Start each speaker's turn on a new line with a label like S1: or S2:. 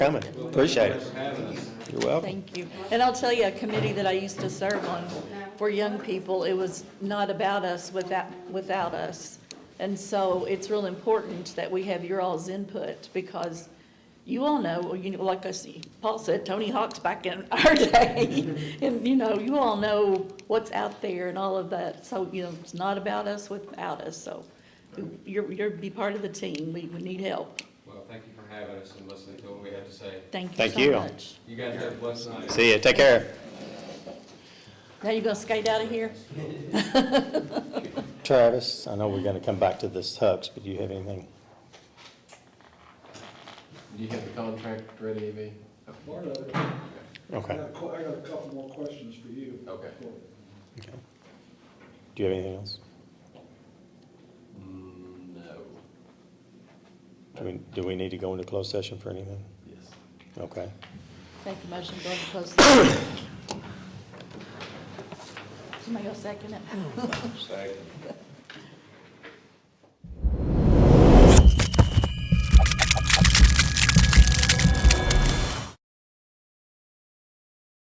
S1: coming. Appreciate it. You're welcome.
S2: Thank you. And I'll tell you, a committee that I used to serve on for young people, it was not about us without, without us. And so it's real important that we have your all's input because you all know, well, you know, like I see, Paul said, Tony Hawk's back in our day. And, you know, you all know what's out there and all of that. So, you know, it's not about us without us. So you're, you're, be part of the team. We, we need help.
S3: Well, thank you for having us and listening to what we have to say.
S2: Thank you
S1: Thank
S2: so
S1: you.
S2: much.
S3: You guys have a blessed night.
S1: See you. Take care.
S2: Now you gonna skate out of here?
S1: Travis, I know we're going to come back to this Hux, but do you have anything?
S4: Do you have the contract ready, Evie?
S5: Part of it. I
S1: Okay.
S5: got a cou- I got a couple more questions for you.
S4: Okay.
S1: Okay. Do you have anything else?
S4: Mm, No.
S1: Do we, do we need to go into closed session for anything?
S4: Yes.
S1: Okay.
S2: Make a motion, go into closed session. Somebody go second it.
S3: Second.